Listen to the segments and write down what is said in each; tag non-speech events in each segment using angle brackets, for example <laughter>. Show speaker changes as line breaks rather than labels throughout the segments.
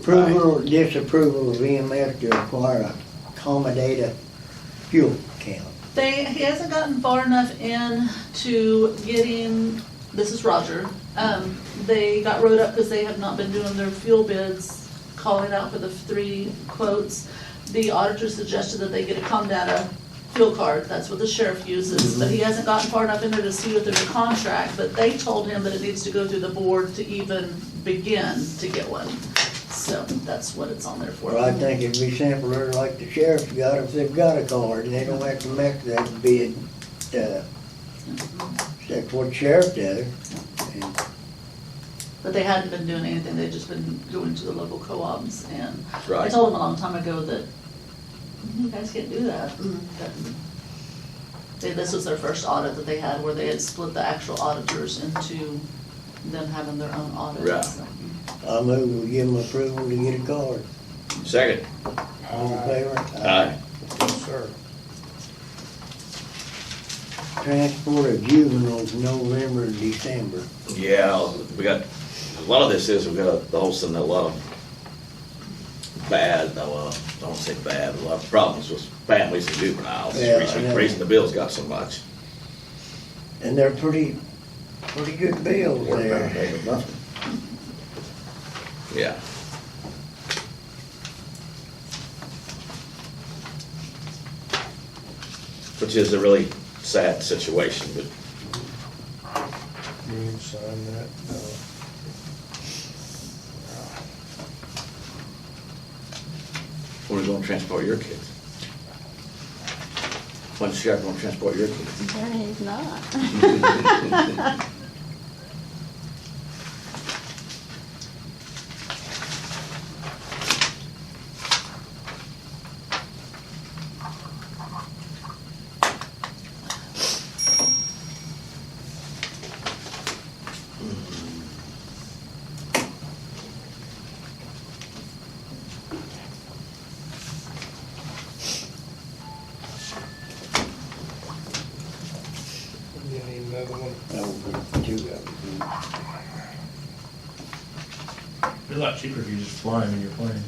Approval or disapproval of EMS to acquire a Comdata fuel account.
They, he hasn't gotten far enough in to getting, this is Roger, um, they got wrote up because they have not been doing their fuel bids, calling out for the three quotes. The auditor suggested that they get a Comdata fuel card, that's what the sheriff uses, but he hasn't gotten far enough in there to see what their contract, but they told him that it needs to go through the board to even begin to get one. So that's what it's on there for.
Well, I think it'd be simpler like the sheriff's got if they've got a card and they don't have to make that bid. uh, That's what sheriff does. And
But they hadn't been doing anything, they'd just been going to the local co-ops and I
Right.
told them a long time ago that "Mm, you guys can't do that. That- They, this was their first audit that they had where they had split the actual auditors into them having their own audit.
Right.
so.
I move we give them approval to get a card.
Second.
All in favor?
Yes, sir.
Transport of juveniles November, to December.
Yeah, we got, a lot of this is, we got a, the whole thing, a lot of bad, no, uh, don't say bad, a lot of problems with families and juveniles.
Yeah, I
Reason,
know.
reason the bills got so much.
And they're pretty, pretty good bills
Worked out a
there.
day with nothing. Yeah. Which is a really sad situation, but
You need to sign that. uh,
we're gonna transport your kids. When's you gonna transport your kids?
There is not.
You need another one?
Over two of them.
Be a lot cheaper if you just fly them in your plane.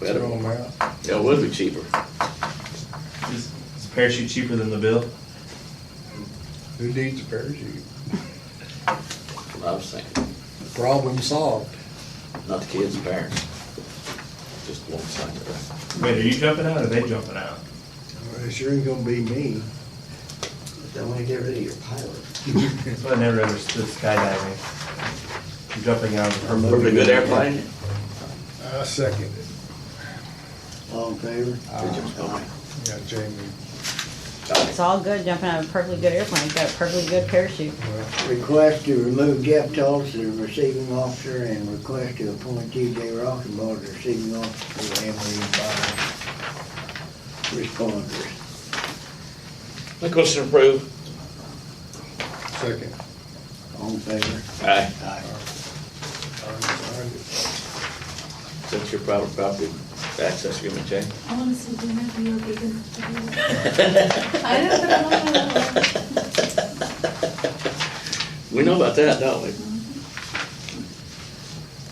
Better.
Throw 'em out.
Yeah, it would be cheaper.
Is, is a parachute cheaper than the bill?
Who needs a parachute?
That's what I was thinking.
Problem solved.
Not the kids, the parents. Just one side of
Wait, are you jumping out or they jumping out?
Well, It sure ain't gonna be me.
They want to get rid of your pilot.
That's why I never understood skydiving. You're Jumping out of a
it.
perfect.
Perfectly good airplane.
I second it.
All in favor? Uh,
Did you- okay.
Yeah, Jamie,
It's all good jumping out of a perfectly good airplane. It's got a perfectly good parachute.
well,
Request to remove Jeff Tulsa, the receiving officer, and request to appoint T.J. Rockenbauer, the receiving officer, for Emory Fire Responders.
Make motion to approve.
second.
All in favor?
Aye.
Aye.
I signed it.
Since your private property access agreement, <laughs> Jay.
I wanna see dinner for your big I don't know.
We know about that, don't we?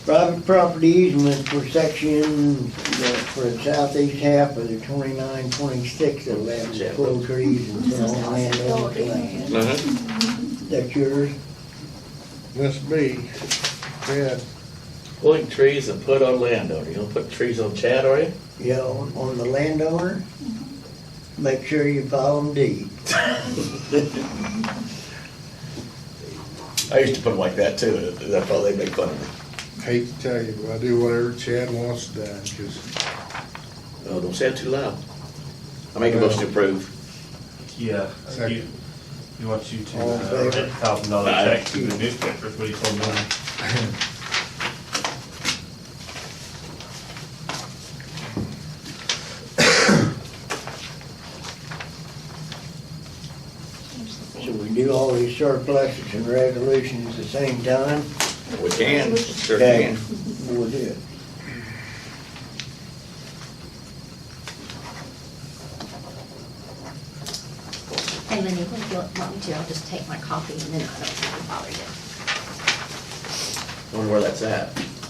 Private property easement for section, the- for the southeast half of the twenty-nine, twenty-six, eleven,
Jeff.
full trees and
This is
some land
awesome.
over the land.
Uh-huh.
That's yours?
Must be, yeah,
Pulling trees and put on land on it. You don't put trees on Chad, are you?
Yeah, on on the landowner? Make sure you file them deed.
I used to put them like that too, and that's why they make fun of me.
hate to tell you, but I do whatever Chad wants done, cause
Oh, don't say it too loud. I make a motion to approve.
Yeah.
Second.
You, you want you to,
All in
uh,
favor?
write a thousand dollar
Aye.
check to the newspaper, is what he told me.
So we do all these surpluses and resolutions at the same time,
We can, sure
Okay.
can.
we'll do it.
Hey, Lenny, if you want me to, I'll just take my coffee and then I don't have to bother you.
Wonder where that's at.